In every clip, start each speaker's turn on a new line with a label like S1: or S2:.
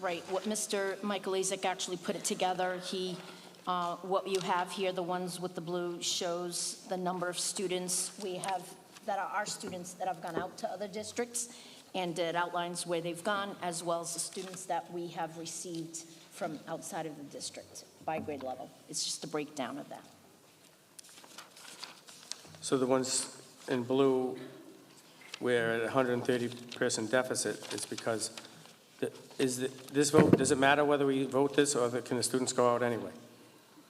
S1: Right, what Mr. Michael Isaac actually put it together, he, uh, what you have here, the ones with the blue, shows the number of students we have, that are our students that have gone out to other districts, and it outlines where they've gone, as well as the students that we have received from outside of the district by grade level. It's just a breakdown of that.
S2: So the ones in blue, where at 130-person deficit, is because, the- is the- this vote, does it matter whether we vote this, or the- can the students go out anyway?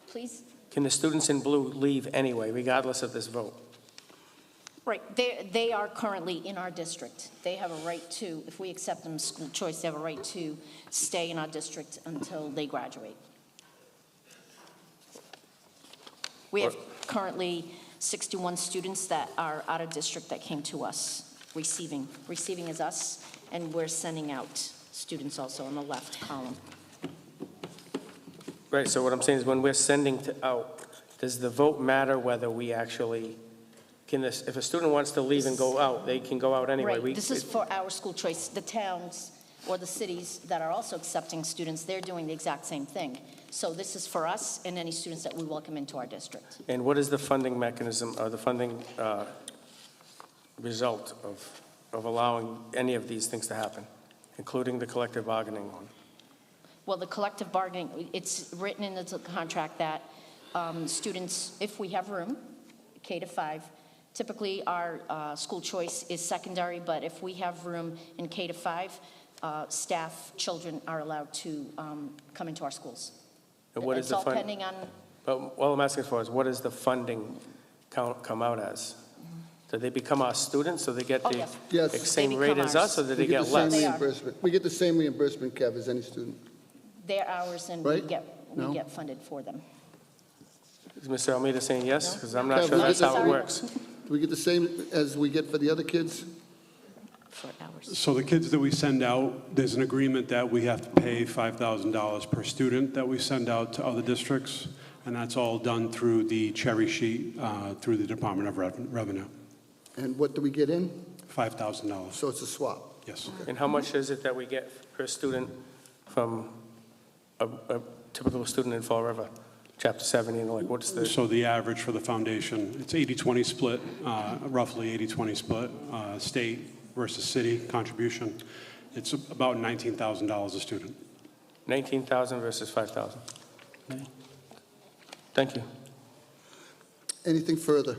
S1: Please?
S2: Can the students in blue leave anyway, regardless of this vote?
S1: Right, they, they are currently in our district. They have a right to, if we accept them school choice, they have a right to stay in our district until they graduate. We have currently 61 students that are out of district that came to us, receiving. Receiving is us, and we're sending out students also on the left column.
S2: Right, so what I'm saying is, when we're sending to out, does the vote matter whether we actually, can this, if a student wants to leave and go out, they can go out anyway?
S1: Right,
S2: We-
S1: this is for our school choice. The towns or the cities that are also accepting students, they're doing the exact same thing. So this is for us and any students that we welcome into our district.
S2: And what is the funding mechanism, or the funding uh, result of, of allowing any of these things to happen, including the collective bargaining one?
S1: Well, the collective bargaining, it's written in the contract that um, students, if we have room, K to five, typically our uh, school choice is secondary, but if we have room in K to five, uh, staff, children are allowed to um, come into our schools.
S2: And what is the
S1: It's all
S2: fund?
S1: pending on
S2: But all I'm asking for is, what does the funding count, come out as? Do they become our students, so they get
S1: Oh,
S2: the
S1: yes.
S2: ex-
S3: Yes. They
S2: same
S1: become
S2: rate as
S1: ours.
S2: us, or do
S3: We
S2: they get
S3: the same
S2: less?
S1: They are.
S3: reimbursement. We get the same reimbursement, Kev, as any student.
S1: their hours and we
S3: Right?
S1: get, we
S3: No?
S1: get funded for them.
S2: Is Mr. Almeida saying yes? Because I'm
S3: Yeah,
S2: not sure
S3: we
S2: that's
S3: get the
S2: how it
S3: same-
S2: works.
S3: Do we get the same as we get for the other kids?
S1: For hours.
S4: So the kids that we send out, there's an agreement that we have to pay $5,000 per student that we send out to other districts, and that's all done through the cherry sheet, uh, through the Department of Reven- Revenue.
S3: And what do we get in?
S4: $5,000,
S3: So it's a swap.
S4: yes.
S2: And how much is it that we get per student from a, a typical student in Fall River, Chapter 70, and like, what's the?
S4: So the average for the foundation, it's 80-20 split, uh, roughly 80-20 split, uh, state versus city contribution. It's about $19,000 a student.
S2: 19,000 versus 5,000. Thank you.
S3: Anything further?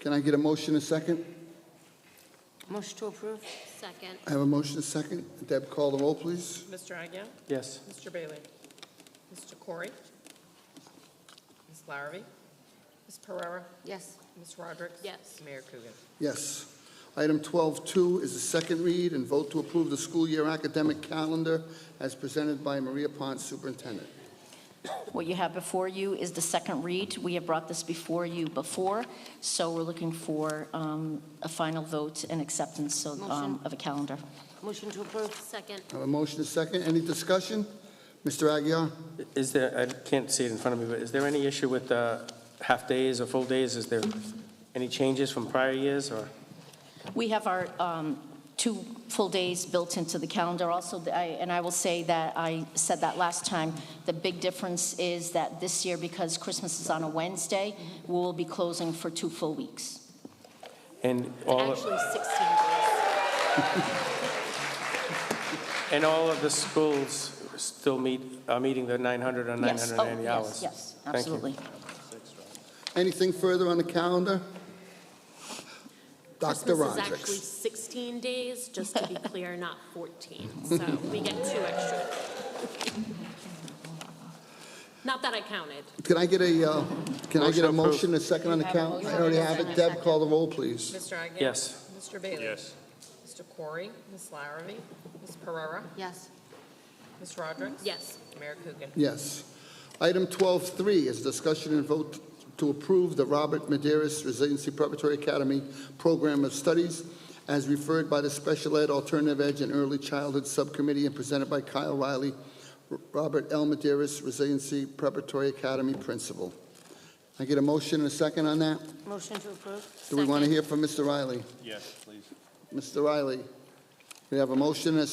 S3: Can I get a motion and a second?
S5: Motion to approve. Second.
S3: I have a motion and a second. Deb, call the roll, please.
S6: Mr. Agia?
S2: Yes.
S6: Mr. Bailey? Mr. Corey? Ms. Larrabee? Ms. Pereira?
S5: Yes.
S6: Ms. Roderick?
S5: Yes.
S6: Mayor Coogan?
S3: Yes. Item 12.2 is the second read and vote to approve the school year academic calendar as presented by Maria Pons, Superintendent.
S1: What you have before you is the second read. We have brought this before you before, so we're looking for um, a final vote and acceptance of um,
S5: Motion.
S1: of a calendar.
S5: Motion to approve. Second.
S3: I have a motion and a second. Any discussion? Mr. Aguirre?
S2: Is there, I can't see it in front of me, but is there any issue with uh, half-days or full days? Is there any changes from prior years, or?
S1: We have our um, two full days built into the calendar also, the- I- and I will say that, I said that last time, the big difference is that this year, because Christmas is on a Wednesday, we'll be closing for two full weeks.
S2: And all,
S5: Actually, 16 days.
S2: and all of the schools still meet, are meeting the 900 or
S1: Yes. Oh,
S2: 980
S1: Yes,
S2: hours?
S1: yes,
S2: Thank you.
S1: absolutely.
S3: Anything further on the calendar? Dr.
S5: Christmas is actually
S3: Rondricks.
S5: 16 days, just to be clear, not 14. So we get two extra. Not that I counted.
S3: Can I get a, uh, can I get a
S2: Motion approved.
S3: motion, a second on the count? I already have it. Deb, call the roll, please.
S6: Mr. Agia?
S2: Yes.
S6: Mr. Bailey? Yes. Mr. Corey? Ms. Larrabee? Ms. Pereira?
S5: Yes.
S6: Ms. Roderick?
S5: Yes.
S6: Mayor Coogan?
S3: Yes. Item 12.3 is discussion and vote to approve the Robert Maderis Resiliency Preparatory Academy Program of Studies as referred by the Special Ed Alternative Ed and Early Childhood Subcommittee and presented by Kyle Riley, R- Robert L. Maderis Resiliency Preparatory Academy Principal. Can I get a motion and a second on that?
S5: Motion to approve.
S3: Do we want to hear from Mr. Riley? Yes, please. Mr. Riley, we have a motion and a